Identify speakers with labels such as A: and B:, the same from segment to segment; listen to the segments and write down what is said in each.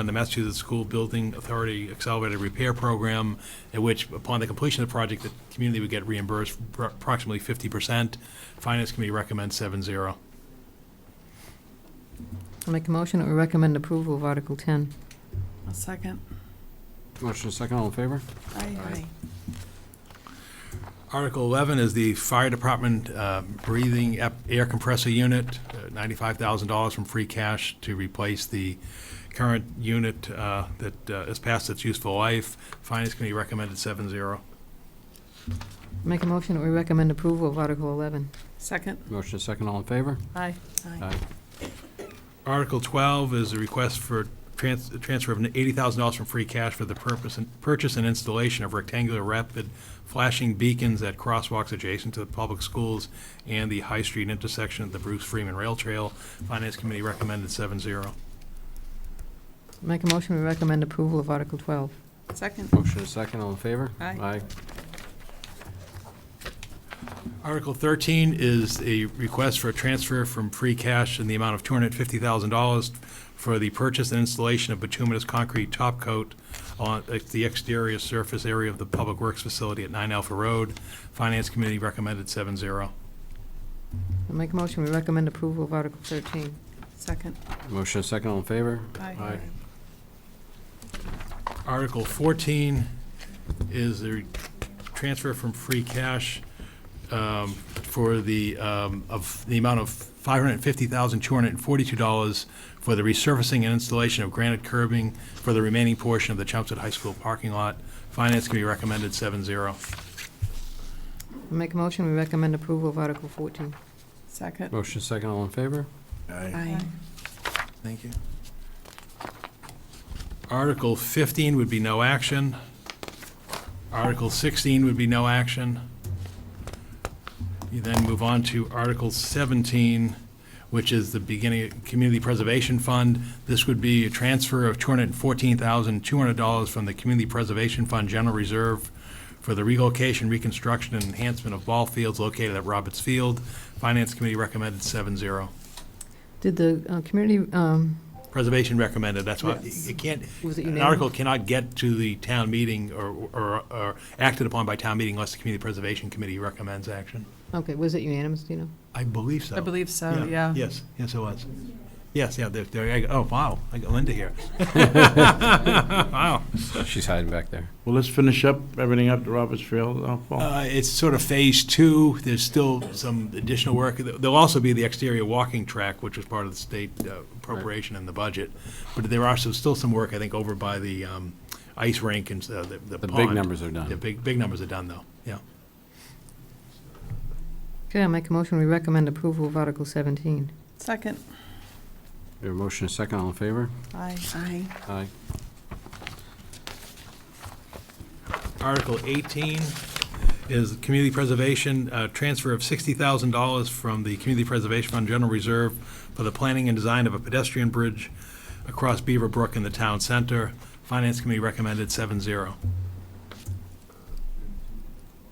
A: on the Massachusetts School Building Authority Accelerated Repair Program, in which upon the completion of the project, the community would get reimbursed for approximately 50%. Finance Committee recommends 7-0.
B: I'll make a motion that we recommend approval of Article 10.
C: A second.
D: Motion is second, all in favor?
C: Aye, aye.
A: Article 11 is the Fire Department uh, Breathing ap- Air Compressor Unit, uh, $95,000 from free cash to replace the current unit uh, that uh, has passed its useful life. Finance Committee recommended 7-0.
B: Make a motion that we recommend approval of Article 11.
C: Second.
D: Motion is second, all in favor?
B: Aye.
D: Aye.
A: Article 12 is a request for trans- transfer of $80,000 from free cash for the purpose and- purchase and installation of rectangular rapid flashing beacons at crosswalks adjacent to the public schools and the High Street intersection at the Bruce Freeman Rail Trail. Finance Committee recommended 7-0.
B: Make a motion we recommend approval of Article 12.
C: Second.
D: Motion is second, all in favor?
C: Aye.
D: Aye.
A: Article 13 is a request for a transfer from free cash in the amount of $250,000 for the purchase and installation of bituminous concrete top coat on the exterior surface area of the Public Works Facility at 9 Alpha Road. Finance Committee recommended 7-0.
B: I'll make a motion we recommend approval of Article 13.
C: Second.
D: Motion is second, all in favor?
C: Aye.
A: Article 14 is the transfer from free cash um, for the, um, of the amount of $550,242 for the resurfacing and installation of granite curbing for the remaining portion of the Chelmsford High School parking lot. Finance Committee recommended 7-0.
B: I'll make a motion we recommend approval of Article 14.
C: Second.
D: Motion is second, all in favor?
C: Aye.
A: Thank you. Article 15 would be no action. Article 16 would be no action. You then move on to Article 17, which is the beginning, Community Preservation Fund. This would be a transfer of $214,200 from the Community Preservation Fund General Reserve for the relocation, reconstruction, and enhancement of ball fields located at Roberts Field. Finance Committee recommended 7-0.
B: Did the uh, community, um,
A: Preservation recommended, that's why,
B: Yes.
A: it can't,
B: was it
A: an
B: unanimous?
A: article cannot get to the town meeting or, or, or acted upon by town meeting unless the Community Preservation Committee recommends action.
B: Okay, was it unanimous, do you know?
A: I believe so.
C: I believe so, yeah.
A: Yes, yes, it was. Yes, yeah, there, there, I go- oh, wow, I got Linda here. Wow.
D: She's hiding back there.
E: Well, let's finish up everything up to Roberts Field. uh, Paul.
A: Uh, It's sort of phase two. There's still some additional work. There'll also be the exterior walking track, which was part of the state uh, appropriation in the budget. But there are some- still some work, I think, over by the um, ice rink and uh, the the
D: The
A: pond.
D: big numbers are
A: The
D: done.
A: big, big numbers are done, though, yeah.
B: Okay, I'll make a motion we recommend approval of Article 17.
C: Second.
D: Your motion is second, all in favor?
C: Aye. Aye.
D: Aye.
A: Article 18 is community preservation, uh, transfer of $60,000 from the Community Preservation Fund General Reserve for the planning and design of a pedestrian bridge across Beaver Brook in the town center. Finance Committee recommended 7-0.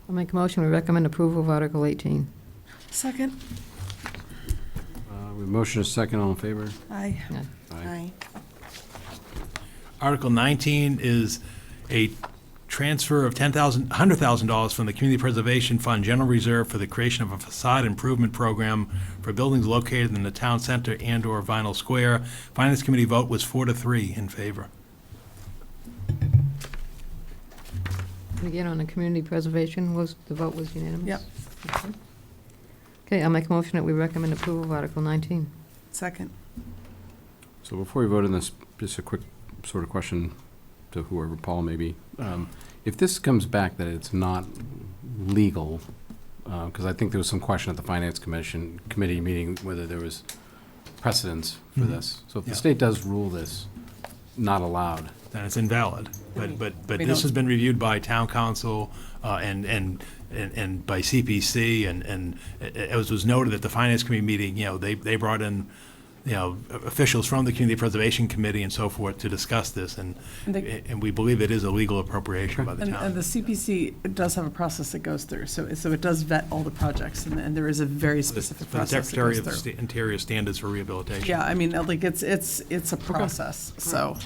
B: I'll make a motion we recommend approval of Article 18.
C: Second.
D: Uh, we motion is second, all in favor?
C: Aye. Aye.
D: Aye.
A: Article 19 is a transfer of $10,000, $100,000 from the Community Preservation Fund General Reserve for the creation of a facade improvement program for buildings located in the town center and/or Vinyl Square. Finance Committee vote was four to three in favor.
B: And Again, on the community preservation, was, the vote was unanimous?
C: Yep.
B: Okay. Okay, I'll make a motion that we recommend approval of Article 19.
C: Second.
D: So before we vote on this, just a quick sort of question to whoever, Paul maybe. Um, If this comes back that it's not legal, because I think there was some question at the Finance Commission, committee meeting, whether there was precedence for
A: Mhm.
D: this. So if the
A: Yeah.
D: state does rule this, not allowed,
A: Then it's invalid. But,
C: Mm.
A: but, but
C: We
A: this
C: don't-
A: has been reviewed by town council uh, and, and, and and by CPC, and, and it- it was was noted at the finance committee meeting, you know, they, they brought in you know, officials from the Community Preservation Committee and so forth to discuss this, and,
C: And the-
A: and we believe it is a legal appropriation by the
C: And, and the
A: town.
C: CPC does have a process that goes through, so, so it does vet all the projects, and, and there is a very
A: The
C: specific
A: the
C: process that
A: Secretary of
C: goes through.
A: Sta- Interior Standards for Rehabilitation.
C: Yeah, I mean, like, it's, it's, it's a process, so.